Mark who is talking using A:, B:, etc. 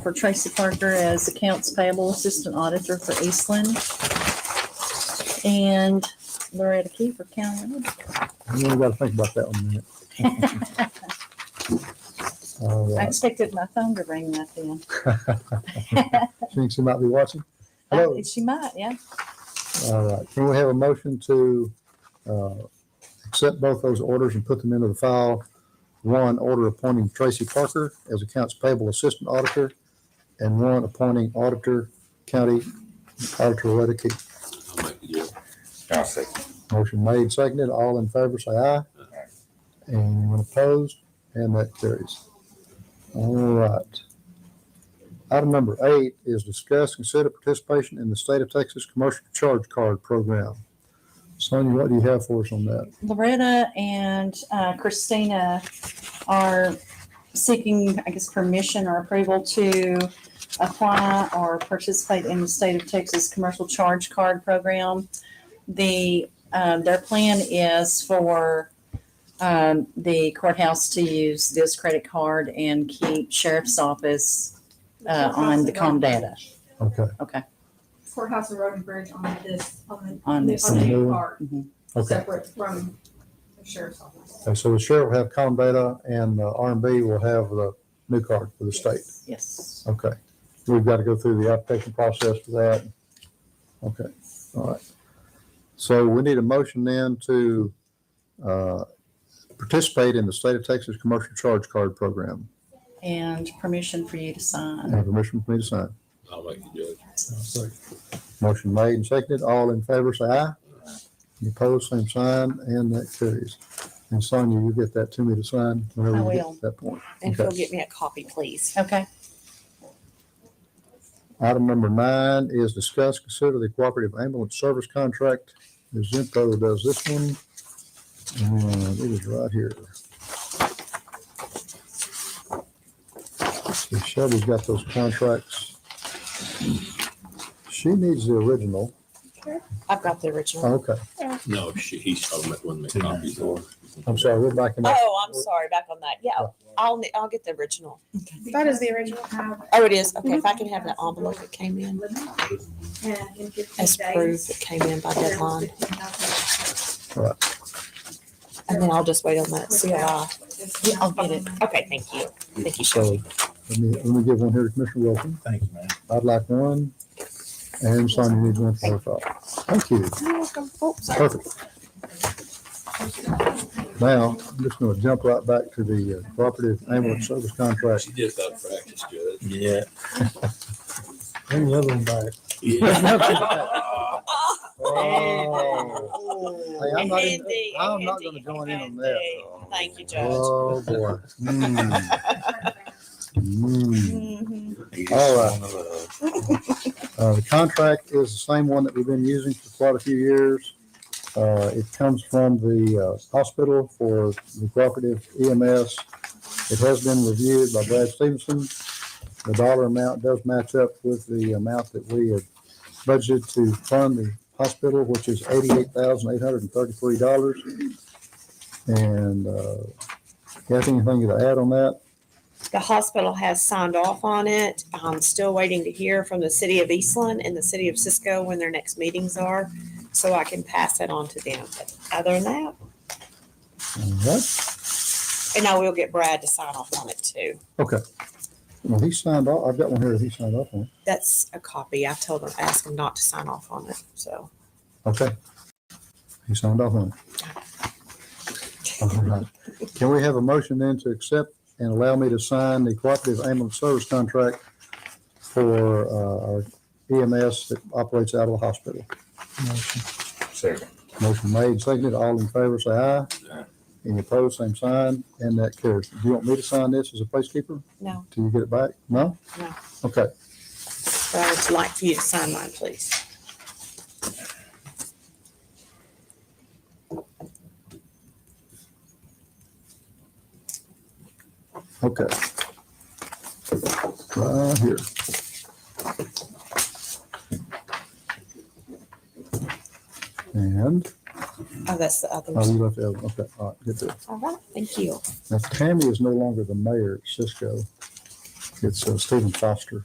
A: for Tracy Parker as accounts payable assistant auditor for Eastland. And Loretta Key for county. auditor.
B: You only gotta think about that one a minute. All
A: I
B: right.
A: expected my phone to ring right then.
B: Think she might be watching? Hello.
A: Uh, She might, yeah.
B: All right. Can we have a motion to, uh, accept both those orders and put them into the file? One, order appointing Tracy Parker as accounts payable assistant auditor, and one appointing auditor, county auditor Loretta Key.
C: Yeah. I'll second.
B: Motion made, seconded. All in favor, say aye. Anyone opposed? And that carries. All right. Item number eight is discuss, consider participation in the state of Texas commercial charge card program. Sonia, what do you have for us on that?
A: Loretta and uh, Christina are seeking, I guess, permission or approval to apply or participate in the state of Texas Commercial Charge Card Program. The, um, their plan is for um, the courthouse to use this credit card and keep sheriff's office uh, on the com data.
B: Okay,
D: Courthouse and Road and Bridge on this, on the.
A: On this. Mm-hmm.
D: On the
B: Mhm.
D: new card,
B: okay.
D: separate from the sheriff's office.
B: And so the sheriff will have com data and uh, R and B will have the new card for the state.
A: Yes.
B: Okay. We've got to go through the application process for that. Okay, all right. So we need a motion then to uh, participate in the state of Texas commercial charge card program.
A: And permission for you to sign.
B: Have permission for me to sign.
C: I'll make the judge.
B: Motion made and seconded. All in favor, say aye. Any opposed, same sign, and that carries. And Sonia, you get that to me to sign whenever
A: I
B: you get
A: will.
B: to that point.
E: And
B: Okay.
E: Phil, get me a copy, please.
A: Okay.
B: Item number nine is discuss, consider the cooperative ambulance service contract. Zimco does this one. And it is right here. See, Shelby's got those contracts. She needs the original.
E: I've got the original.
B: Okay,
C: No, she, he's talking about one of the copies.
B: I'm sorry, we're backing up.
E: Oh, I'm sorry, back on that. Yeah, I'll, ne- I'll get the original.
F: That is the original.
D: Have
E: Oh, it is. Okay, if I can have the envelope that came in
D: limit and in fifteen
E: as proof that
D: days.
E: came in by
D: there was
E: deadline,
D: 15,000.
E: and then I'll just wait on that COI.
A: Yeah, I'll get it.
E: Okay, thank you. Thank you.
B: So let me, let me give one here to Commissioner Wilson.
G: Thank you, man.
B: I'd like one. And Sonia needs one for herself. Thank you.
E: You're welcome. Oh, sorry.
B: Perfect. Now, I'm just gonna jump right back to the uh, cooperative ambulance service contract.
C: She just out of practice, Judge.
G: Yeah. Bring the other one back.
C: Yeah.
E: Ah,
B: Hey, I'm not, in-
E: Andy,
B: I'm not gonna
E: Andy,
B: join in on
E: Andy.
B: that.
E: Thank you, Judge.
B: Oh, boy. Mm, mm.
C: All
B: Uh, the contract is the same one that we've been using for quite a few years. Uh, it comes from the, uh, hospital for the cooperative EMS. It has been reviewed by Brad Stevenson. The dollar amount does match up with the amount that we had budgeted to fund the hospital, which is eighty-eight thousand, eight hundred and thirty-three dollars. And, uh, Kathy, anything to add on that?
E: The hospital has signed off on it. I'm still waiting to hear from the city of Eastland and the city of Cisco when their next meetings are, so I can pass that on to them. But other than that,
B: What?
E: And I will get Brad to sign off on it too.
B: Well, he signed off, I've got one here that he signed off on.
E: That's a copy. I told him, ask him not to sign off on it, so.
B: Okay. He signed off on it. All right. Can we have a motion then to accept and allow me to sign the cooperative ambulance service contract for uh, our EMS that operates out of the hospital?
C: Second.
B: Motion made, seconded, all in favor, say aye.
C: Aye.
B: Any opposed, same sign, and that carries. Do you want me to sign this as a placekeeper?
E: No.
B: Till you get it back? No?
E: No.
B: Okay,
E: But I would like for you to sign mine, please.
B: okay. Right here. And
E: Oh, that's the other
B: Oh,
E: one.
B: you left Evan, okay, all right, good deal.
E: All right, thank you.
B: Now Tammy is no longer the mayor at Cisco. It's uh, Stephen Foster.